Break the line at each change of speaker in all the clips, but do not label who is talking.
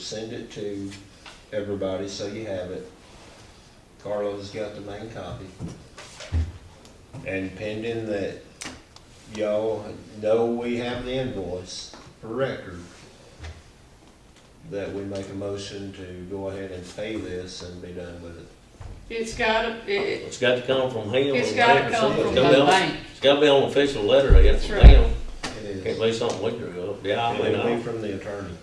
Send it to everybody so you have it. Carlos got the main copy. And pending that y'all know we have the invoice for record, that we make a motion to go ahead and pay this and be done with it.
It's gotta, it,
It's got to come from him.
it's
or
gotta
whatever.
come from
It's
the
gotta be on-
bank.
It's gotta be on an official letter, I guess,
That's
from
right.
them.
It
Can't
is.
be something we drew up, yeah, I mean,
It'll
I.
be from the attorney.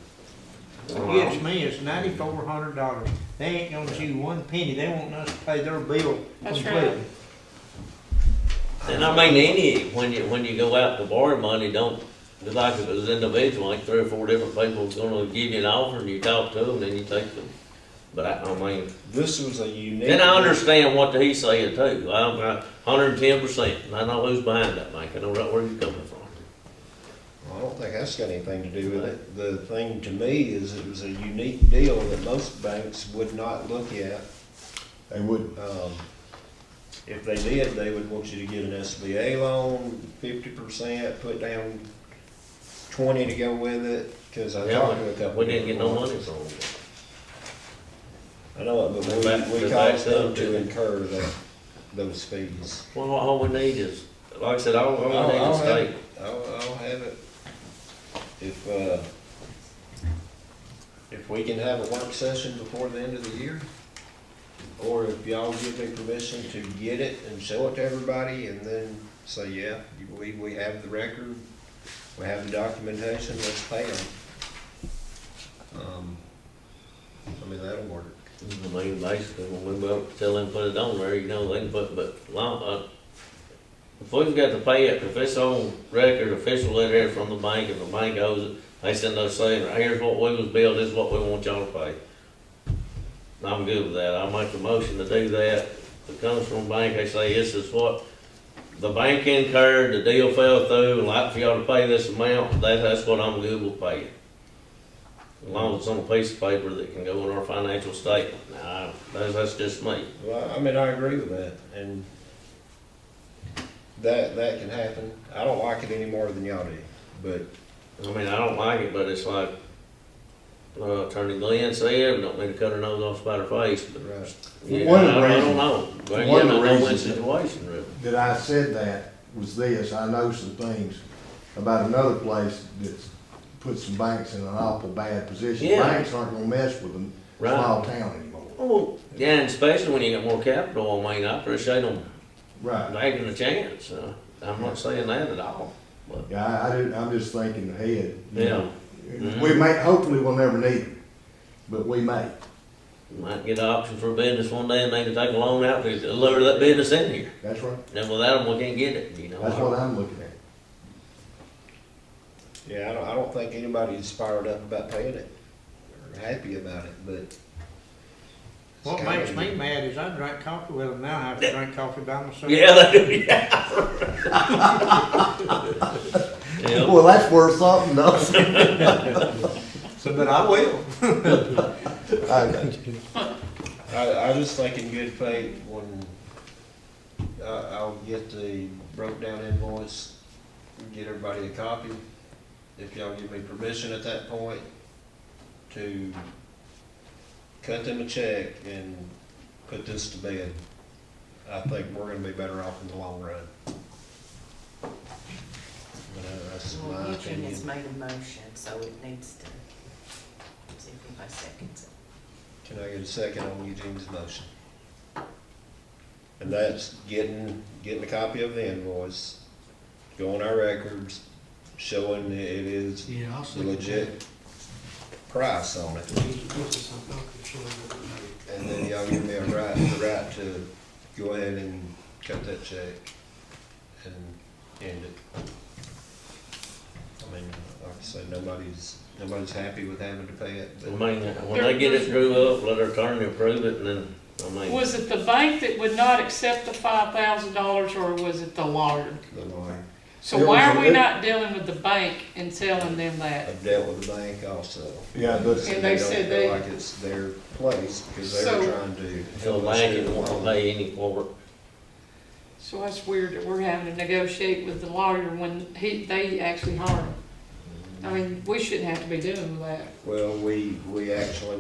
What gets me is ninety-four hundred dollars. They ain't gonna chew one penny. They want us to pay their bill
That's
completely.
And I mean, any, when you, when you go out to borrow money, don't, it's like if it was individual, like three or four different people's gonna give you an offer and you talk to them, then you take them. But I, I mean,
This was a unique.
then I understand what he's saying too, I'm, I, hundred and ten percent, and I know who's behind that bank, I know right where you're coming from.
I don't think that's got anything to do with it. The thing to me is it was a unique deal that most banks would not look at.
They wouldn't.
Um, If they did, they would want you to get an SBA loan, fifty percent, put down twenty to go with it, cause I
Yeah,
talked to a couple.
we didn't get no
people.
money from them.
I know, it, but
They backed-
we, we
they backed
caused them
up,
to
didn't
incur that, those fees.
Well, all we need is, like I said, all, all
I'll-
we need
I'll
is
have
state.
it. I'll, I'll have it. If, uh, if we can have a work session before the end of the year, or if y'all give me permission to get it and show it to everybody and then say, yeah, you believe we have the record, we have the documentation, let's pay them. Um, I mean, that'll work.
I mean, basically, when we go up to tell them to put it on there, you know, they can put, but long, uh, if we've got to pay it, if it's on record, official letter from the bank, if the bank owes it, they send us saying, here's what we was billed, this is what we want y'all to pay. I'm good with that, I make a motion to do that, if it comes from the bank, they say, this is what the bank incurred, the deal fell through, and like for y'all to pay this amount, that, that's what I'm good with paying. As long as it's on a piece of paper that can go in our financial statement. Now, that's, that's just me.
Well, I mean, I agree with that, and that, that can happen. I don't like it any more than y'all do, but
I mean, I don't like it, but it's like, uh, Attorney Glenn said, we don't mean to cut her nose off by her face, but.
Right.
Yeah,
One of the
I- I
reasons-
don't know. But
one
yeah,
of the
not no win
reasons-
situation, really.
that I said that was this, I know some things about another place that's put some banks in an awful bad position.
Yeah.
Banks aren't gonna mess with them,
Right.
small town anymore.
Oh, Well, yeah, and especially when you get more capital, I mean, I appreciate them
Right,
taking a chance. uh, I'm not saying that at all, but,
yeah, I, I did, I'm just thinking ahead. you
yeah,
know.
Mhm.
We may, hopefully we'll never need them, but we may.
you might get an option for a business one day and they can take a loan out to lure that business in here.
That's right,
And without them, we can't get it, you know?
that's what I'm looking at.
Yeah, I don't, I don't think anybody's fired up about paying it, or happy about it, but. it's
What
kinda-
makes me mad is I drank coffee with them. Now I have to drink coffee by myself.
Yeah, they do, yeah. Yeah,
Well, that's worth something else.
So, but I will.
I got you.
I, I just think in good faith, when, I, I'll get the broke down invoice, get everybody a copy. If y'all give me permission at that point to cut them a check and put this to bed, I think we're gonna be better off in the long run. But uh, that's
Well,
my
Eugene
opinion.
has made a motion, so it needs to, see if anybody seconds it.
Can I get a second on Eugene's motion? And that's getting, getting a copy of the invoice, go on our records, showing that it is
Yeah, I'll
the
second that.
legit price on it.
We need to put this on document, show them what we made.
And then y'all give me a right, the right to go ahead and cut that check and end it. I mean, like I say, nobody's, nobody's happy with having to pay it,
I
but.
mean, when they get it drew up, let her attorney approve it, and then, I mean,
Was it the bank that would not accept the five thousand dollars, or was it the lawyer?
the lawyer.
So
It
why
was
are we
the-
not dealing with the bank and telling them that?
I've dealt with the bank also.
Yeah, but-
And they
don't
said they-
feel like it's their place, because they were
So-
trying to.
feel like it won't pay any for it.
So that's weird that we're having to negotiate with the lawyer when he, they actually hired him. I mean, we shouldn't have to be doing that.
Well, we, we actually